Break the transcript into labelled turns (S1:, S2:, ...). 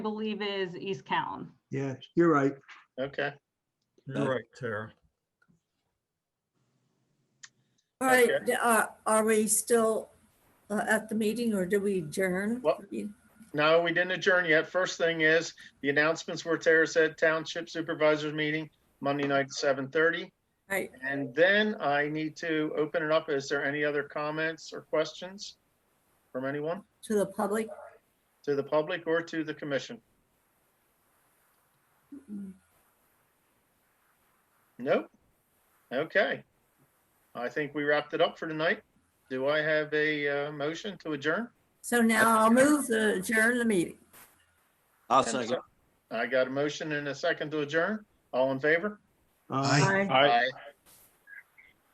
S1: believe is East Callan.
S2: Yeah, you're right.
S3: Okay.
S4: You're right, Tara.
S5: All right,
S3: Okay.
S5: d- uh, are we still uh, at the meeting or did we adjourn?
S3: Well- No, we didn't adjourn yet. First thing is, the announcements were Tara said, Township Supervisors Meeting, Monday night, seven thirty.
S5: Right.
S3: And then I need to open it up. Is there any other comments or questions from anyone
S5: To the public?
S3: to the public or to the commission? Nope. Okay. I think we wrapped it up for tonight. Do I have a uh, motion to adjourn?
S5: So now I'll move the adjourn the meeting.
S6: I'll
S3: And a
S6: second.
S3: sec- I got a motion and a second to adjourn. All in favor?
S2: Uh,
S5: Aye.
S3: Aye.